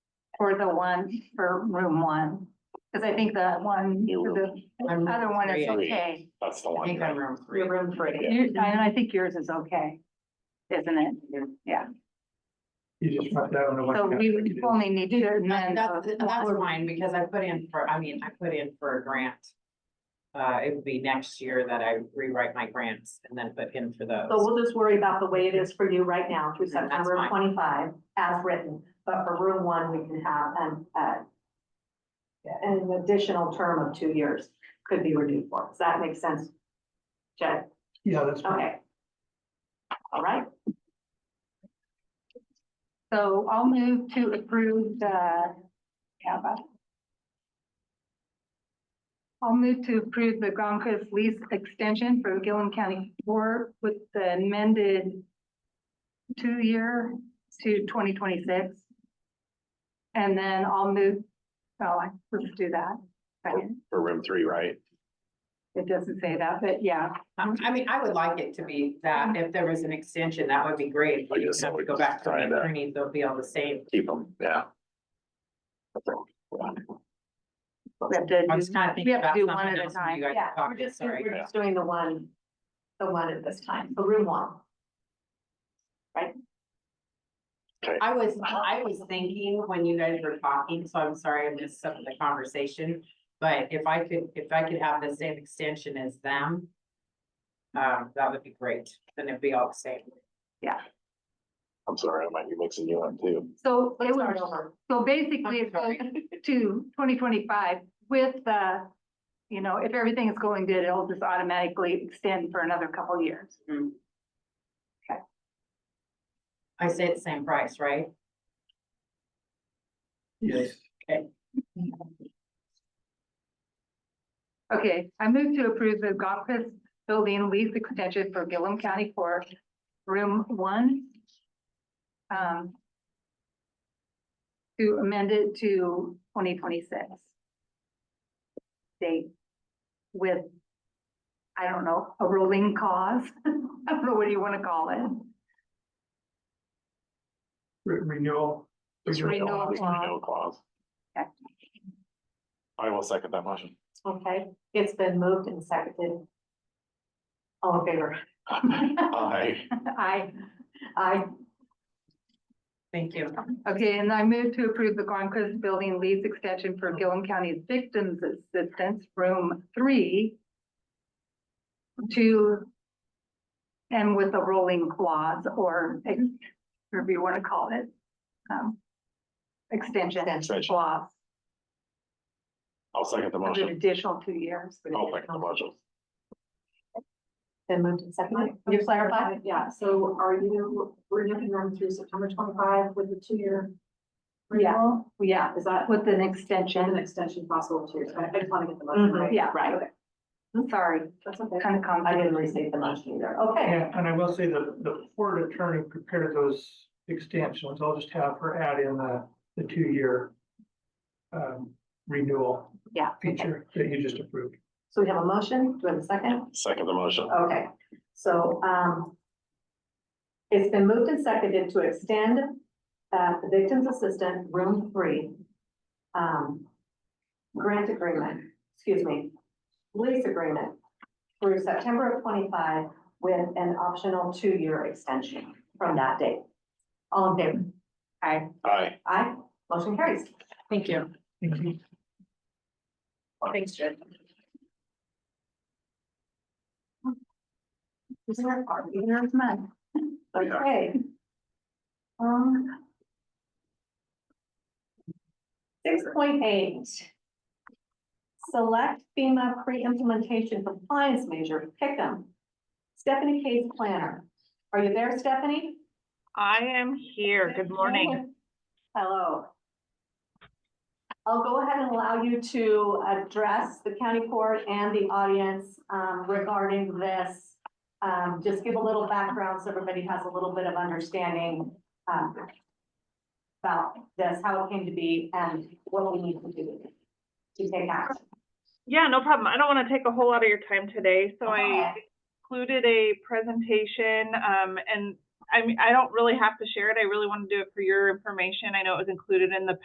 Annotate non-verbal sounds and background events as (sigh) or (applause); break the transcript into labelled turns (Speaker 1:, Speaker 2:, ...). Speaker 1: for the one, for room one. Cause I think the one, the
Speaker 2: I'm-
Speaker 1: other one is
Speaker 2: Three.
Speaker 1: okay.
Speaker 3: That's the
Speaker 2: I
Speaker 3: one.
Speaker 2: think I'm room three.
Speaker 1: Your room for it. You- And I think yours is okay. Isn't it? Yeah,
Speaker 4: You just want that on the.
Speaker 1: so we would only need to
Speaker 2: That-
Speaker 1: amend.
Speaker 2: That's,
Speaker 1: the-
Speaker 2: that's mine, because I put in for, I mean, I put in for a grant. Uh, it would be next year that I rewrite my grants and then put in for
Speaker 5: So
Speaker 2: those.
Speaker 5: we'll just worry about the way it is for you right now through
Speaker 2: Mhm, that's
Speaker 5: September
Speaker 2: fine.
Speaker 5: twenty-five as written, but for room one, we can have an, uh, an additional term of two years could be renewed for. Does that make sense? Jed,
Speaker 4: Yeah, that's. fine.
Speaker 5: okay. All right,
Speaker 1: So I'll move to approve the, yeah, but. I'll move to approve the Gronkos lease extension for the Gillum County Board with the amended two-year to twenty twenty-six. And then I'll move, oh, I- let's do that. Second.
Speaker 3: For room three, right?
Speaker 1: It doesn't say that, but yeah,
Speaker 2: Um, I mean, I would like it to be that
Speaker 5: Mm-hmm.
Speaker 2: if there was an extension, that would be great.
Speaker 3: I
Speaker 2: You
Speaker 3: guess I
Speaker 2: have to
Speaker 3: would
Speaker 2: go back to
Speaker 3: try
Speaker 2: the
Speaker 3: that.
Speaker 2: attorney, they'll be all the same.
Speaker 3: Keep them, yeah. Okay.
Speaker 1: we have to
Speaker 2: I was
Speaker 1: do-
Speaker 2: kind of
Speaker 1: we
Speaker 2: thinking
Speaker 1: have to
Speaker 2: about
Speaker 1: do one
Speaker 2: something
Speaker 1: at a
Speaker 2: else. when
Speaker 1: time.
Speaker 2: You guys
Speaker 5: yeah,
Speaker 2: were
Speaker 5: we're
Speaker 2: talking,
Speaker 5: just, we're
Speaker 2: sorry.
Speaker 5: just doing the one, the one at this time, the room one.
Speaker 2: I was, I was thinking when you guys were talking, so I'm sorry I missed some of the conversation. But if I could, if I could have the same extension as them. Um, that would be great, then it'd be all the same.
Speaker 3: I'm sorry, I might be mixing you up too.
Speaker 1: So it
Speaker 5: Let's start
Speaker 1: was,
Speaker 5: over.
Speaker 1: so basically it goes to twenty twenty-five with the, you know, if everything is going good, it'll just automatically extend for another couple of years.
Speaker 2: I say it's same price, right?
Speaker 4: Yes.
Speaker 1: Okay, I move to approve the Gompus Building lease extension for Gillum County Court, room one. Um. To amend it to twenty twenty-six. Date with, I don't know, a rolling cause, (laughs) I don't know what do you want to call it,
Speaker 4: Re- Renewal.
Speaker 3: This
Speaker 1: Renewal
Speaker 3: renewal this
Speaker 1: clause.
Speaker 3: renewal clause.
Speaker 1: Okay.
Speaker 3: I will second that motion. (laughs)
Speaker 5: Okay, it's been moved and seconded. All in favor?
Speaker 3: I,
Speaker 1: I.
Speaker 5: Aye.
Speaker 2: Thank you.
Speaker 1: Okay, and I move to approve the Gronkos Building lease extension for Gillum County Victims Assistance Room Three to, and with a rolling clause or ex- whatever you want to call it, um, extension
Speaker 3: Extension.
Speaker 1: clause,
Speaker 3: I'll second the
Speaker 1: of an
Speaker 2: (laughs)
Speaker 3: motion.
Speaker 1: additional two years.
Speaker 3: I'll second the motion.
Speaker 5: Then moved and seconded.
Speaker 1: Can you clarify?
Speaker 5: Yeah, so are you renewing them through September twenty-five with the two-year?
Speaker 1: Yeah.
Speaker 5: renewal? Yeah, is that
Speaker 1: With an
Speaker 5: an
Speaker 1: extension, Mm-hmm.
Speaker 5: extension possible two years? I I just want to get the motion
Speaker 2: Mhm.
Speaker 5: right.
Speaker 1: Yeah.
Speaker 5: Right.
Speaker 1: I'm sorry,
Speaker 5: That's okay.
Speaker 1: kind of
Speaker 5: I
Speaker 1: complicated.
Speaker 5: didn't receive the motion either. Okay.
Speaker 4: And, and I will say that the court attorney prepared those extensions. I'll just have her add in the, the two-year um, renewal
Speaker 1: Yeah,
Speaker 4: feature that you just approved.
Speaker 5: So we have a motion. Do we have a second?
Speaker 3: Second the motion.
Speaker 5: Okay, so, um, it's been moved and seconded to extend, uh, the victim's assistant, room three, um, grant agreement, excuse me, lease agreement through September of twenty-five with an optional two-year extension from that date. All in favor? Aye.
Speaker 3: Aye.
Speaker 5: Aye, motion carries.
Speaker 2: Thank you.
Speaker 4: Thank you.
Speaker 5: Thanks, Jen. Isn't that hard?
Speaker 1: There's mine.
Speaker 5: Okay. Um. Six point eight. Select FEMA pre-implementation compliance measure, pick them. Stephanie Case Planner. Are you there, Stephanie?
Speaker 6: I am here. Good morning.
Speaker 5: Hello. I'll go ahead and allow you to address the county court and the audience um, regarding this. Um, Just give a little background so everybody has a little bit of understanding um, about this, how it came to be, and what we need to do to take action.
Speaker 6: Yeah, no problem. I don't want to take a whole lot of your time today, so I
Speaker 5: Okay.
Speaker 6: included a presentation, um, and I mean, I don't really have to share it. I really want to do it for your information. I know it was included in the